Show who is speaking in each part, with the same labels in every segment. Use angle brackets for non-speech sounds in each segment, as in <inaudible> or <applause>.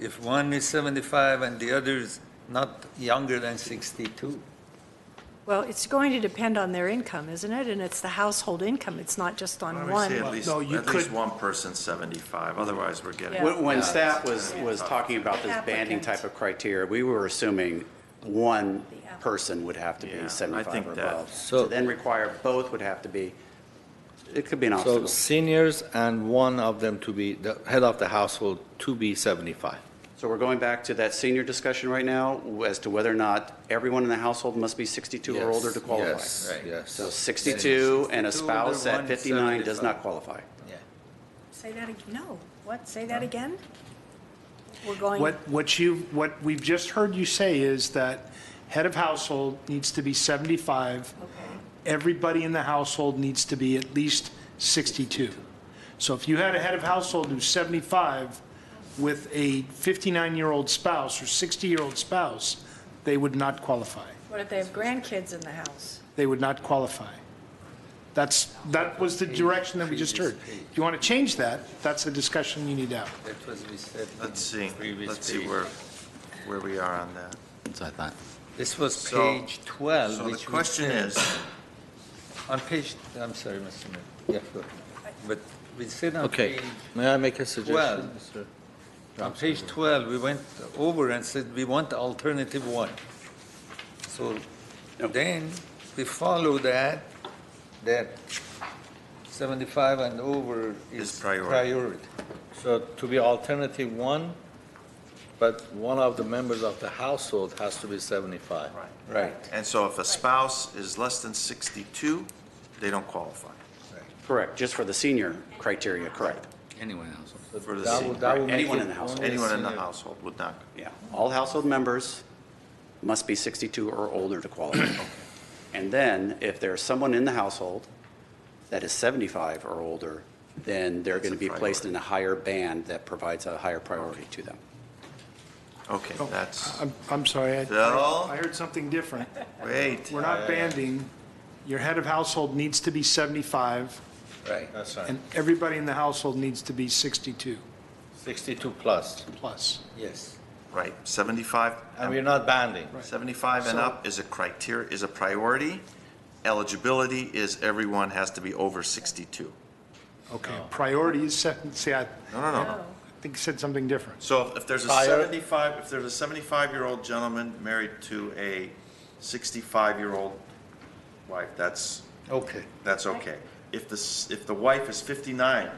Speaker 1: if one is 75 and the other is not younger than 62.
Speaker 2: Well, it's going to depend on their income, isn't it? And it's the household income, it's not just
Speaker 3: Why
Speaker 2: on
Speaker 3: don't we say
Speaker 2: one.
Speaker 3: at least,
Speaker 4: No, you
Speaker 3: at least
Speaker 4: could-
Speaker 3: one person 75, otherwise we're getting.
Speaker 2: Yeah.
Speaker 5: When when staff was, was talking about this banding
Speaker 2: Applicant.
Speaker 5: type of criteria, we were assuming one
Speaker 2: applicant.
Speaker 5: person would have to
Speaker 3: Yeah, I
Speaker 5: be 75
Speaker 3: think
Speaker 5: or
Speaker 3: that-
Speaker 5: above.
Speaker 6: So-
Speaker 5: To then require both would have to be, it could be an
Speaker 6: So
Speaker 5: obstacle.
Speaker 6: seniors and one of them to be, the head of the household to be 75.
Speaker 5: So we're going back to that senior discussion right now as to whether or not everyone in the household must be 62 or older to qualify.
Speaker 6: Yes, yes.
Speaker 5: So 62 and a
Speaker 1: 62,
Speaker 5: spouse
Speaker 1: the
Speaker 5: at
Speaker 1: one
Speaker 5: 59 does
Speaker 1: 75.
Speaker 5: not qualify.
Speaker 6: Yeah.
Speaker 2: Say that, ag- no, what, say that again? We're going,
Speaker 4: What, what you, what we've just heard you say is that head of household needs to be 75. Everybody in the household needs to be at least 62. So if you had a head of household who's 75 with a 59-year-old spouse or 60-year-old spouse, they would not qualify.
Speaker 2: what if they have grandkids in the house?
Speaker 4: They would not qualify. That's, that was the direction that we just heard. If you want to change that, that's the discussion you need to have.
Speaker 1: That was we said in
Speaker 3: Let's see,
Speaker 1: previous
Speaker 3: let's see
Speaker 1: page.
Speaker 3: where, where we are on that.
Speaker 5: So I thought.
Speaker 1: This was
Speaker 3: So-
Speaker 1: page 12,
Speaker 3: So the
Speaker 1: Uh, which we
Speaker 3: question
Speaker 1: said-
Speaker 3: is,
Speaker 1: On page, I'm sorry, Mr. Mayor. Yeah, go ahead. But we said on
Speaker 6: Okay,
Speaker 1: page,
Speaker 6: may I make a suggestion? Mr.
Speaker 1: on page 12, we went over and said we want alternative one. So then we follow that, that 75 and over
Speaker 3: Is
Speaker 1: is
Speaker 3: priority.
Speaker 1: priority.
Speaker 6: So to be alternative one, but one of the members of the household has to be 75.
Speaker 3: Right.
Speaker 1: Right.
Speaker 3: and so if a spouse is less than 62, they don't qualify.
Speaker 5: Correct, just for the senior criteria, correct.
Speaker 7: Anyone else?
Speaker 6: So
Speaker 3: For the
Speaker 6: that
Speaker 3: senior.
Speaker 6: would- that would make
Speaker 5: Anyone
Speaker 6: it
Speaker 5: in the household.
Speaker 6: only
Speaker 3: Anyone in the
Speaker 6: senior.
Speaker 3: household would not.
Speaker 5: Yeah, all household members must be 62 or older
Speaker 3: <coughs>
Speaker 5: to qualify. And then, if there's someone in the household that is 75 or older, then they're
Speaker 3: That's a
Speaker 5: going to be placed
Speaker 3: priority.
Speaker 5: in a higher band that provides a higher priority to them.
Speaker 3: Okay,
Speaker 4: Oh.
Speaker 3: that's,
Speaker 1: Uh,
Speaker 4: I'm, I'm sorry, I-
Speaker 3: Phil?
Speaker 4: I heard something different.
Speaker 3: wait,
Speaker 4: We're not banding. Your head of household needs to be 75,
Speaker 1: Right.
Speaker 6: That's right,
Speaker 4: and everybody in the household needs to be 62
Speaker 6: 62 plus.
Speaker 4: plus.
Speaker 1: Yes.
Speaker 3: right, 75,
Speaker 6: And we're not banding.
Speaker 3: 75 and up is a criteria, is a priority. Eligibility is everyone has to be over 62.
Speaker 4: Okay, priority is, se- see, I
Speaker 3: No, no, no, no.
Speaker 2: No.
Speaker 4: think you said something different.
Speaker 3: So if there's a
Speaker 6: Prior-
Speaker 3: 75, if there's a 75-year-old gentleman married to a 65-year-old wife, that's,
Speaker 1: Okay.
Speaker 3: that's okay. If the, s- if the wife is 59,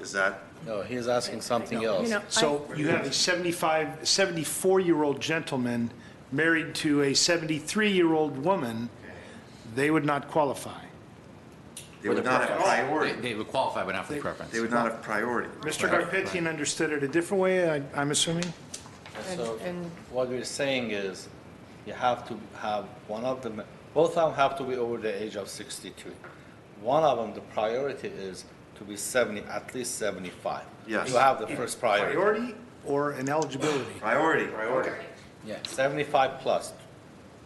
Speaker 3: is that,
Speaker 6: No, he's asking something
Speaker 2: You
Speaker 6: else.
Speaker 2: know, I-
Speaker 4: So you have a 75, 74-year-old gentleman married to a 73-year-old woman, they would not qualify.
Speaker 3: they would not have
Speaker 7: They-
Speaker 3: priority,
Speaker 7: They would qualify, but not for the preference.
Speaker 3: they would not have priority.
Speaker 4: Mr. Garpetian understood it a different way, I- I'm assuming?
Speaker 6: So
Speaker 2: and-
Speaker 6: what we're saying is, you have to have one of them, both of them have to be over the age of 62. One of them, the priority is to be 70, at least 75.
Speaker 3: Yes.
Speaker 6: You have the first priority.
Speaker 4: Priority or an eligibility?
Speaker 3: Priority. Priority.
Speaker 6: Yeah, 75 plus.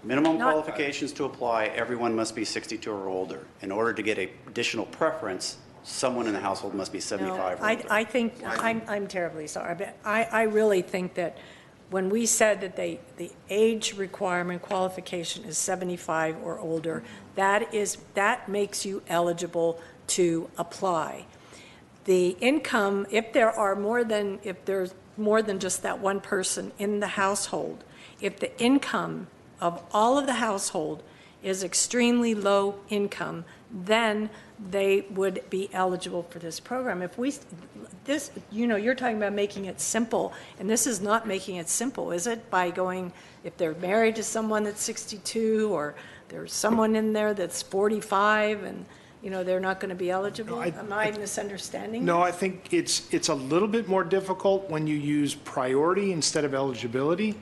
Speaker 5: Minimum
Speaker 2: Not-
Speaker 5: qualifications to apply, everyone must be 62 or older. In order to get a additional preference, someone in the household must be
Speaker 2: No,
Speaker 5: 75 or
Speaker 2: I,
Speaker 5: older.
Speaker 2: I think, I'm, I'm terribly sorry, but I, I really think that when we said that they, the age requirement qualification is 75 or older, that is, that makes you eligible to apply. The income, if there are more than, if there's more than just that one person in the household, if the income of all of the household is extremely low income, then they would be eligible for this program. If we, this, you know, you're talking about making it simple, and this is not making it simple, is it? By going, if they're married to someone that's 62, or there's someone in there that's 45, and, you know, they're not going to be eligible?
Speaker 4: No, I-
Speaker 2: Am I misunderstanding?
Speaker 4: No, I think it's, it's a little bit more difficult when you use priority instead of eligibility,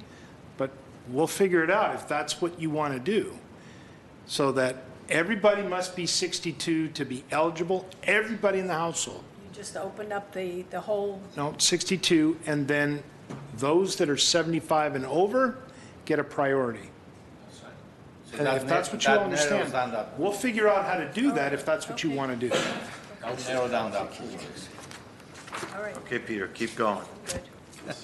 Speaker 4: but we'll figure it out if that's what you want to do. So that everybody must be 62 to be eligible, everybody in the household,
Speaker 2: You just opened up the, the whole,
Speaker 4: no, 62, and then those that are 75 and over get a priority. And if that's what you
Speaker 6: That narrows
Speaker 4: understand,
Speaker 6: down that-
Speaker 4: we'll figure out how to do that if that's what you
Speaker 2: Okay.
Speaker 4: want to do.
Speaker 6: I'll narrow down that.
Speaker 2: all right,
Speaker 3: Okay, Peter, keep going.
Speaker 2: good.